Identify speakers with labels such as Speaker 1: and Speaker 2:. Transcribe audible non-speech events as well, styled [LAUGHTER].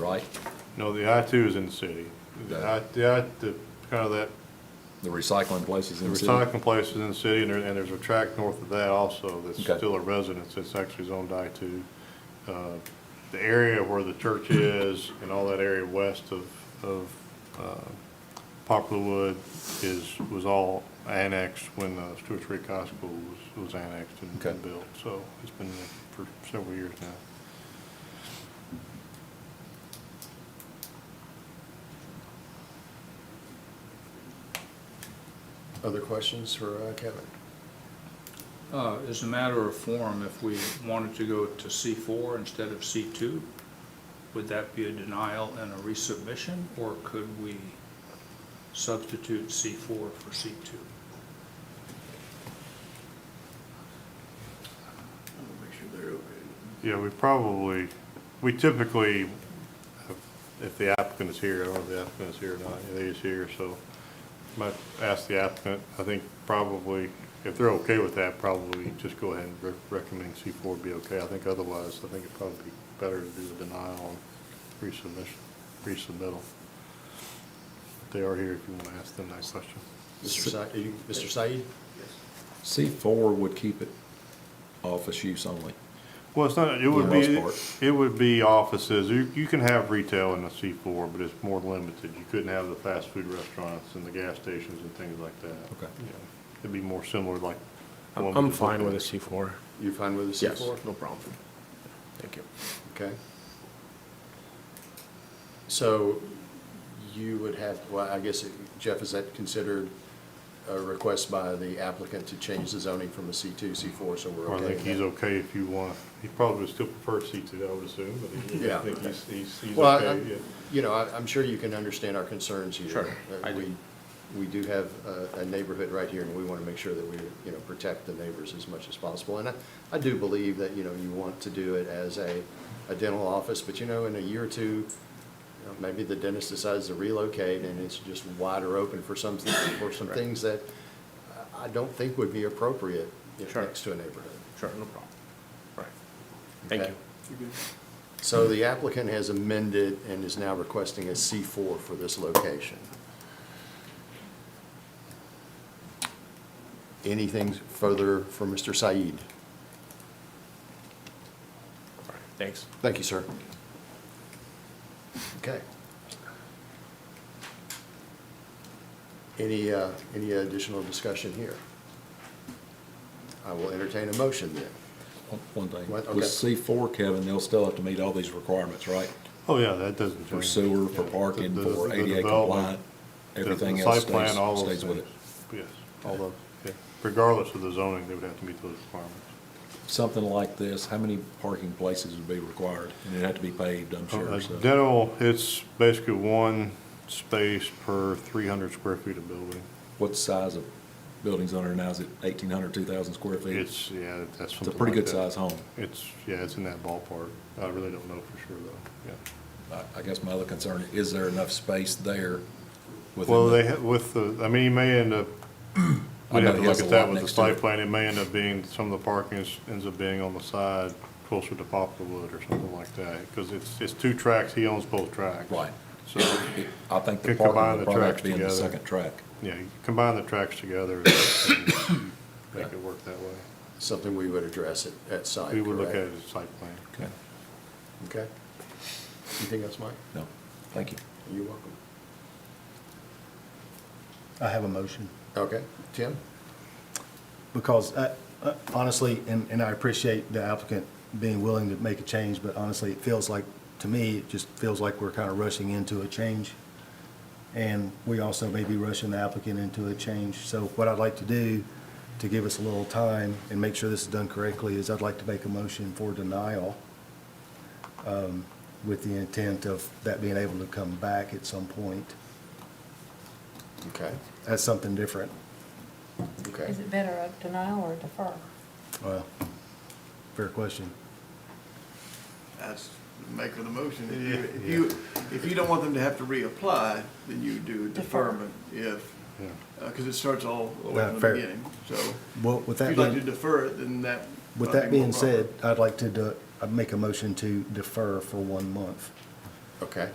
Speaker 1: right?
Speaker 2: No, the I two is in the city. The I, the, I- the, kind of that,
Speaker 1: The recycling places
Speaker 2: the
Speaker 1: in the city?
Speaker 2: recycling place is in the city, and there, and there's a tract north of that also that's
Speaker 1: Okay.
Speaker 2: still a residence, that's actually zoned I two. Uh, The area where the church is and all that area west of, of, uh, Poplarwood is, was all annexed when the Stewart's Creek High School was, was annexed and
Speaker 1: Okay.
Speaker 2: and built, so it's been there for several years now.
Speaker 3: Other questions for uh, Kevin?
Speaker 4: Uh, As a matter of form, if we wanted to go to C4 instead of C2, would that be a denial and a resubmission, or could we substitute C4 for C2?
Speaker 2: Yeah, we probably, we typically, if the applicant is here, I don't know if the applicant is here or not, he is here, so might ask the applicant, I think probably, if they're okay with that, probably just go ahead and rec- recommend C four be okay. I think otherwise, I think it'd probably be better to do the denial and resubmission, resubmittal. They are here if you want to ask them that question.
Speaker 3: Mr. Said, you, Mr. Said?
Speaker 1: C four would keep it office use only.
Speaker 2: Well, it's not, it would
Speaker 1: the most
Speaker 2: be,
Speaker 1: part.
Speaker 2: it would be offices, you, you can have retail in the C four, but it's more limited. You couldn't have the fast food restaurants and the gas stations and things like that.
Speaker 1: Okay.
Speaker 2: Yeah. It'd be more similar like.
Speaker 5: I'm
Speaker 2: one
Speaker 5: I'm
Speaker 2: we just looked
Speaker 5: fine with a
Speaker 2: at.
Speaker 5: C4.
Speaker 3: You fine with the
Speaker 5: Yes,
Speaker 3: C4?
Speaker 5: no problem. Thank you.
Speaker 3: Okay. So you would have, well, I guess, Jeff, is that considered a request by the applicant to change the zoning from a C2, C4, so we're
Speaker 2: Or I
Speaker 3: okay?
Speaker 2: think
Speaker 3: with
Speaker 2: he's
Speaker 3: that?
Speaker 2: okay if you want, he probably would still prefer C two, I would assume, but he- I
Speaker 3: Yeah.
Speaker 2: think he's, he's, he's
Speaker 3: Well, I-
Speaker 2: okay,
Speaker 3: I'm-
Speaker 2: yeah.
Speaker 3: You know, I- I'm sure you can understand our concerns here.
Speaker 4: Sure,
Speaker 3: Uh,
Speaker 4: I do.
Speaker 3: we- We do have a- a neighborhood right here, and we want to make sure that we, you know, protect the neighbors as much as possible. And I I do believe that, you know, you want to do it as a a dental office, but you know, in a year or two, you know, maybe the dentist decides to relocate, and it's just wider open for some, for some things that I don't think would be appropriate you know,
Speaker 5: Sure.
Speaker 3: next to a neighborhood.
Speaker 5: Sure, no problem. Right. Thank
Speaker 3: Okay.
Speaker 5: you.
Speaker 3: So the applicant has amended and is now requesting a C4 for this location. Anything further for Mr. Said?
Speaker 5: All right, Thanks.
Speaker 3: Thank you, sir. Okay. Any, uh, any additional discussion here? I will entertain a motion then.
Speaker 1: One- One
Speaker 3: What?
Speaker 1: thing,
Speaker 3: Okay.
Speaker 1: with C four, Kevin, they'll still have to meet all these requirements, right?
Speaker 2: Oh, yeah, that doesn't change.
Speaker 1: For sewer, for
Speaker 2: Yeah.
Speaker 1: parking,
Speaker 2: The- the-
Speaker 1: for
Speaker 2: the
Speaker 1: ADA
Speaker 2: development,
Speaker 1: compliant,
Speaker 2: the- the
Speaker 1: everything
Speaker 2: site
Speaker 1: else
Speaker 2: plan,
Speaker 1: stays,
Speaker 2: all those
Speaker 1: stays with it.
Speaker 2: things. Yes, all those, yeah. regardless of the zoning, they would have to meet those requirements.
Speaker 1: Something like this, how many parking places would be required? And it'd have to be paved, I'm
Speaker 2: Uh,
Speaker 1: sure, so.
Speaker 2: Dental, it's basically one space per three hundred square feet of building.
Speaker 1: What size of buildings under now? Is it 1,800, 2,000 square feet?
Speaker 2: It's, yeah,
Speaker 1: It's
Speaker 2: that's
Speaker 1: a
Speaker 2: something
Speaker 1: pretty
Speaker 2: like
Speaker 1: good
Speaker 2: that.
Speaker 1: size home.
Speaker 2: It's, yeah, it's in that ballpark. I really don't know for sure though, yeah.
Speaker 1: I, I guess my other concern, is there enough space there within?
Speaker 2: Well,
Speaker 1: the-
Speaker 2: they, ha- with the, I mean, you may
Speaker 1: [CLEARS THROAT]
Speaker 2: end up,
Speaker 1: I
Speaker 2: we'd
Speaker 1: know
Speaker 2: have to
Speaker 1: he has
Speaker 2: look
Speaker 1: a
Speaker 2: at
Speaker 1: lot
Speaker 2: that with the
Speaker 1: next to it.
Speaker 2: site plan. It may end up being, some of the parking is, ends up being on the side closer to Poplarwood or something like that. Because it's, it's two tracks, he owns both tracks.
Speaker 1: Right.
Speaker 2: So,
Speaker 1: I think the parking would
Speaker 2: Could combine the
Speaker 1: probably have
Speaker 2: tracks
Speaker 1: to be in the
Speaker 2: together.
Speaker 1: second track.
Speaker 2: yeah, you combine the tracks together and
Speaker 1: [COUGHS]
Speaker 2: make it work that way.
Speaker 3: Something we would address at, at site,
Speaker 2: We would look at
Speaker 3: correct?
Speaker 2: it as a site plan.
Speaker 1: Okay.
Speaker 3: Okay. Anything else, Mike?
Speaker 1: No, thank you.
Speaker 3: You're welcome.
Speaker 6: I have a motion,
Speaker 3: Okay, Tim?
Speaker 6: because uh, uh, honestly, and, and I appreciate the applicant being willing to make a change, but honestly, it feels like, to me, it just feels like we're kind of rushing into a change. And we also may be rushing the applicant into a change. So what I'd like to do, to give us a little time and make sure this is done correctly, is I'd like to make a motion for denial um, with the intent of that being able to come back at some point
Speaker 3: Okay,
Speaker 6: as something different.
Speaker 3: okay.
Speaker 7: Is it better a denial or a defer?
Speaker 6: Well, fair question.
Speaker 8: That's the maker of the motion. If you, if you don't want them to have to reapply, then you do a deferment if,
Speaker 2: Yeah.
Speaker 8: because it starts all the way
Speaker 6: Yeah,
Speaker 8: from the
Speaker 6: fair.
Speaker 8: beginning. So
Speaker 6: Well, with
Speaker 8: if
Speaker 6: that
Speaker 8: you'd like to
Speaker 6: being,
Speaker 8: defer it, then that.
Speaker 6: with
Speaker 8: might
Speaker 6: that
Speaker 8: be more
Speaker 6: being said,
Speaker 8: proper.
Speaker 6: I'd like to, de- I'd make a motion to defer for one month.
Speaker 3: Okay.